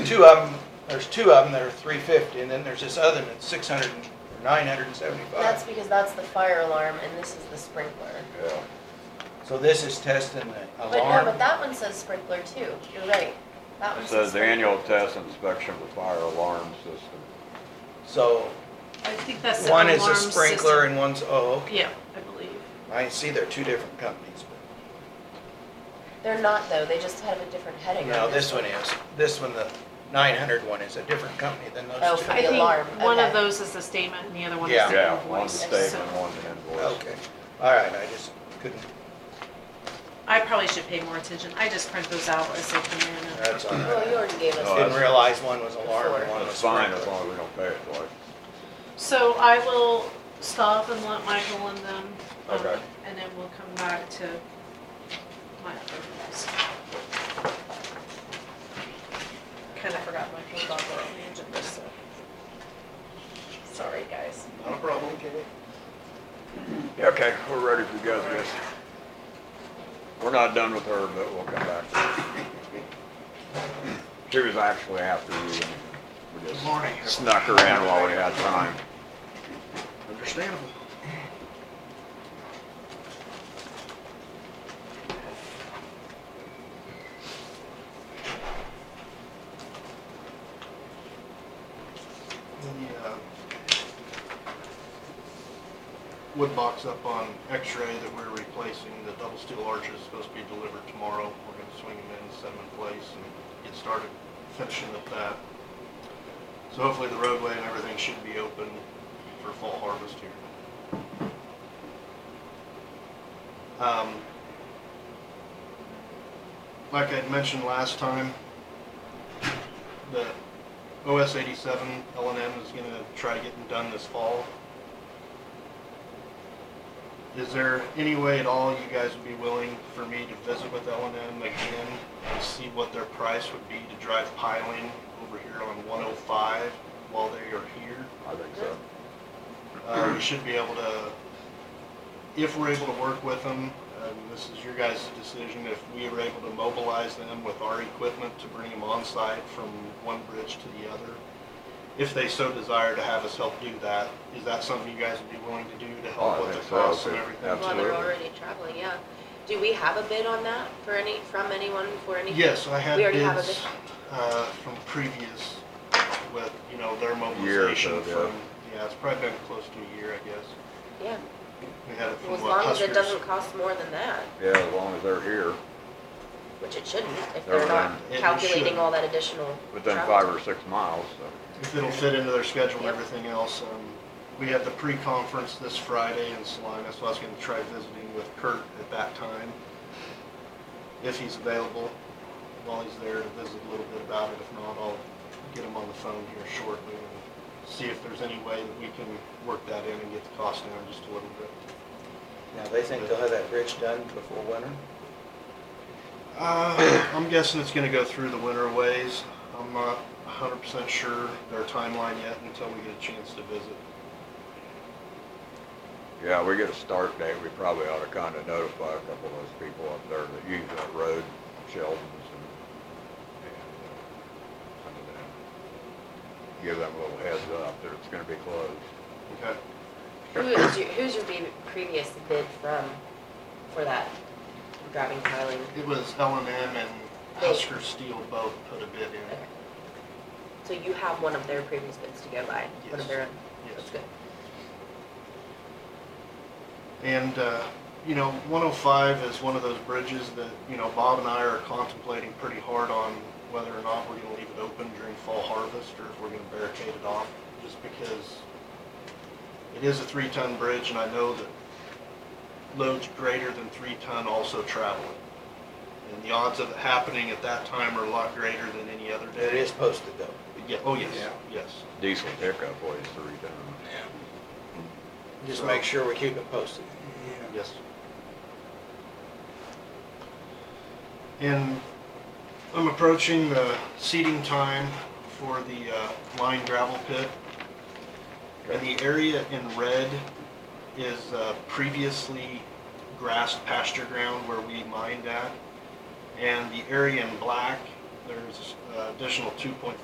two of them, there's two of them that are three fifty, and then there's this other one that's six hundred and, or nine hundred and That's seventy-five. because that's the fire alarm and this is the sprinkler. Yeah. So this is testing the But no, alarm. but that one says sprinkler too, you're right. That one It says says. the annual test inspection of the fire alarm system. So I think that's the one alarm is a system. sprinkler and one's, oh, okay. Yeah, I believe. I see they're two different companies, but. They're not though, they just have a different heading. No, on this one is, this one, the nine hundred one is a different company than Oh, those two. For the I alarm, think one of okay. those is the statement and the other one is Yeah. Yeah, the one invoice. statement, so- one invoice. Okay, all right, I just couldn't, I probably should pay more attention. I just print those out as they come in. and- that's on, Well, Oh, you already gave us. No, didn't realize one was alarm and one was It's Oh, fine as sprinkler. long as we don't pay it twice. So I will stop and let Michael and them. um, Okay. And then we'll come back to my other rules. Kinda forgot my whole dog on the agenda, so. Sorry, guys. Not a problem. Okay, we're ready for you guys, guys. We're not done with her, but we'll come back. She was actually after you. and we just morning. Snuck her in while we had time. Understandable. The, uh, Wood box up on X-ray that we're replacing, the double steel arch is supposed to be delivered tomorrow. We're gonna swing them in, set them in place and get started finishing up that. So hopefully the roadway and everything should be open for fall harvest here. Um, Like I'd mentioned last time, the OS eighty-seven L and M is gonna try to get them done this fall. Is there any way at all you guys would be willing for me to visit with L and M again and see what their price would be to drive piling over here on one oh five while they are here? I think so. Uh, we should be able to, if we're able to work with them, um, this is your guys' decision, if we are able to mobilize them with our equipment to bring them on site from one bridge to the other, if they so desire to have us help do that, is that something you guys would be willing to do to Oh, I help with the think so, costs if and it- everything? Well, they're Absolutely. already traveling, yeah. Do we have a bid on that for any, from anyone, for any? Yes, I had We already have a bids, uh, from previous with, you know, their mobilization of, yeah. from, yeah, it's probably been close to a year, I guess. Yeah, We had it well, as from what, long as it Huskers? doesn't cost more than that, Yeah, as long as they're here, which it shouldn't, if They're they're not running. It calculating shouldn't. all that additional within travel. five or six miles, so. If it'll fit into their schedule and everything else, um, we have the pre-conference this Friday in Salina, so I was gonna try visiting with Kurt at that time. If he's available, while he's there to visit a little bit about it, if not, I'll get him on the phone here shortly and see if there's any way that we can work that in and get the cost down just a little bit. Now, they think they'll have that bridge done before winter? Uh, I'm guessing it's gonna go through the winter ways. I'm not hundred percent sure their timeline yet until we get a chance to visit. Yeah, we get a start date, we probably ought to kind of notify a couple of those people up there that use that road, Sheldon's and, and, uh, some of them. Give them a little heads up that it's gonna be closed. Okay? Who is your, who's your be- previous bid from, for that driving piling? It was L and M and Husker Steel both put a bid in. So you have one of their previous bids to go by, one of Yes. their, Yes. that's good. And, uh, you know, 105 is one of those bridges that, you know, Bob and I are contemplating pretty hard on whether or not we're gonna leave it open during fall harvest or if we're gonna barricade it off, just because it is a three-ton bridge and I know that loads greater than three-ton also travel it. And the odds of it happening at that time are a lot greater than any other It day. is posted though. Yeah, oh yes, Yeah. yes. Diesel pickup weighs three tons. Just make sure we keep it posted. Yes. And I'm approaching the seeding time for the uh, lined gravel pit. And the area in red is uh, previously grassed pasture ground where we mined at. And the area in black, there's uh, additional 2.5